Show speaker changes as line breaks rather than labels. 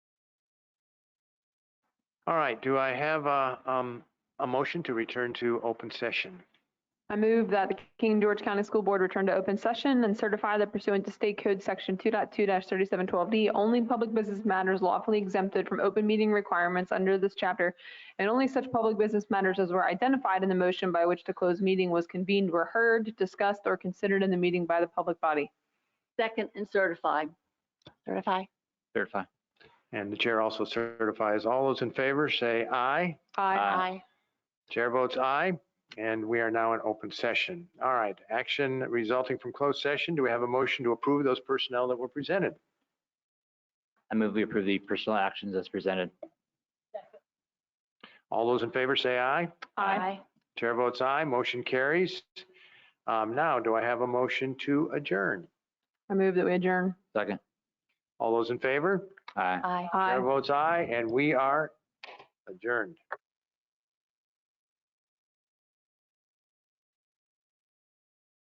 All right, do I have a, um, a motion to return to open session?
I move that the King George County School Board return to open session and certify that pursuant to State Code Section 2.2-3712D, only public business matters lawfully exempted from open meeting requirements under this chapter, and only such public business matters as were identified in the motion by which the closed meeting was convened were heard, discussed, or considered in the meeting by the public body.
Second and certified.
Certify.
Certify.
And the chair also certifies, all those in favor say aye.
Aye.
Aye.
Chair votes aye, and we are now in open session. All right, action resulting from closed session, do we have a motion to approve those personnel that were presented?
I move we approve the personal actions as presented.
All those in favor say aye.
Aye.
Chair votes aye, motion carries. Um, Now, do I have a motion to adjourn?
I move that we adjourn.
Second.
All those in favor?
Aye.
Aye.
Chair
Aye.
votes aye, and we are adjourned.